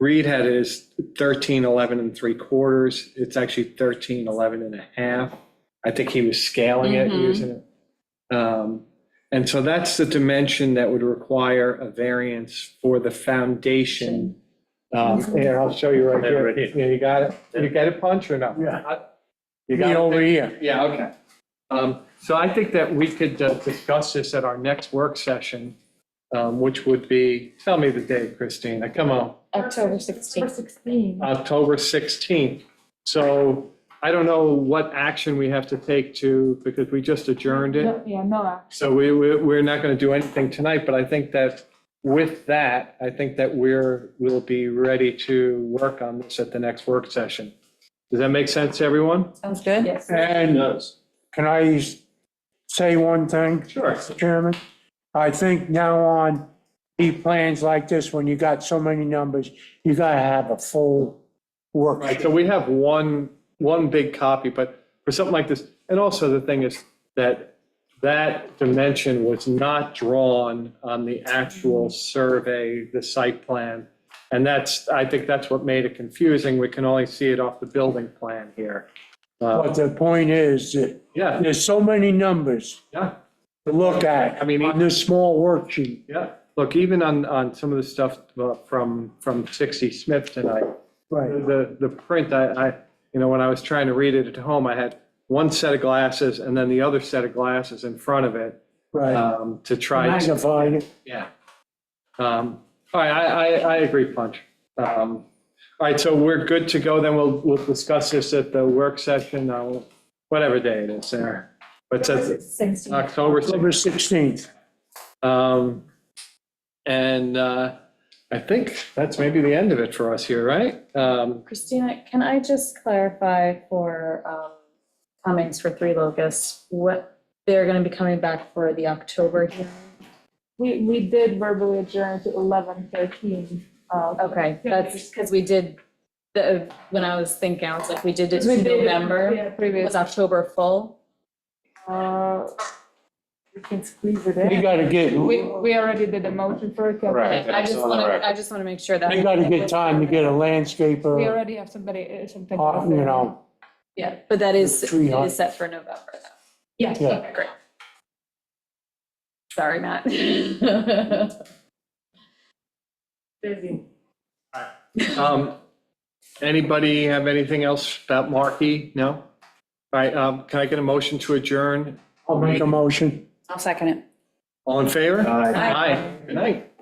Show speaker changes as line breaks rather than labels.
Reed had his 13, 11 and three quarters. It's actually 13, 11 and a half. I think he was scaling it,
Mhm.
using it. Um, And so that's the dimension that would require a variance for the foundation. Um, Here, I'll show you right
Yeah,
here.
right here.
Yeah, You got it? You got it, Punch, or no?
Yeah.
You got it?
over here.
Yeah, okay. Um, So I think that we could uh, discuss this at our next work session, um, which would be, tell me the date, Christina, come on,
October
For
16th.
16.
October 16th. So I don't know what action we have to take to, because we just adjourned it.
No, Yeah, no, uh,
So we, we- we're not going to do anything tonight, but I think that with that, I think that we're, we'll be ready to work on this at the next work session. Does that make sense to everyone?
Sounds good.
yes.
And
And
can I say one thing,
Sure.
Chairman? I think now on, the plans like this, when you got so many numbers, you gotta have a full work.
Right, so we have one, one big copy, but for something like this, and also the thing is that that dimension was not drawn on the actual survey, the site plan. And that's, I think that's what made it confusing. We can only see it off the building plan here. Uh,
But the point is, that
Yeah,
there's so many numbers
yeah,
to look at
I mean,
on this small worksheet.
yeah. Look, even on, on some of the stuff uh, from, from 60 Smith tonight,
Right,
The, the print, I, I, you know, when I was trying to read it at home, I had one set of glasses and then the other set of glasses in front of it
right.
um, to try to,
Magnified.
yeah. Um, All right, I, I, I agree, Punch. Um, All right, so we're good to go, then we'll, we'll discuss this at the work session, uh, whatever day it is there. But that's
16.
October 16th.
October 16th.
Um, And uh, I think that's maybe the end of it for us here, right? Um,
Christina, can I just clarify for um, Cummings for Three Locusts, what, they're going to be coming back for the October hearing?
We, we did verbally adjourn to 11:13. uh,
Okay, that's because we did, the, when I was thinking, I was like, we did it
because we
in
did it-
November.
Yeah,
Was
previous.
October full?
uh, We can squeeze it
We
in.
gotta get,
We,
we
we already did the motion for it.
Right.
Okay, I
that's
just
on the
want
record.
to, I just want to make sure that.
gotta get time to get a
We
landscaper,
already have somebody, uh, something.
uh, you know,
Yeah, but that is, it
Tree hug.
is set for November. though.
Yes.
Yeah.
Okay, Great. Sorry, Matt.
Busy.
Um, Anybody have anything else about Markey? No? All right, um, can I get a motion to adjourn?
I'll make a motion.
I'll second it.
All in favor?
I
Aye. Good night.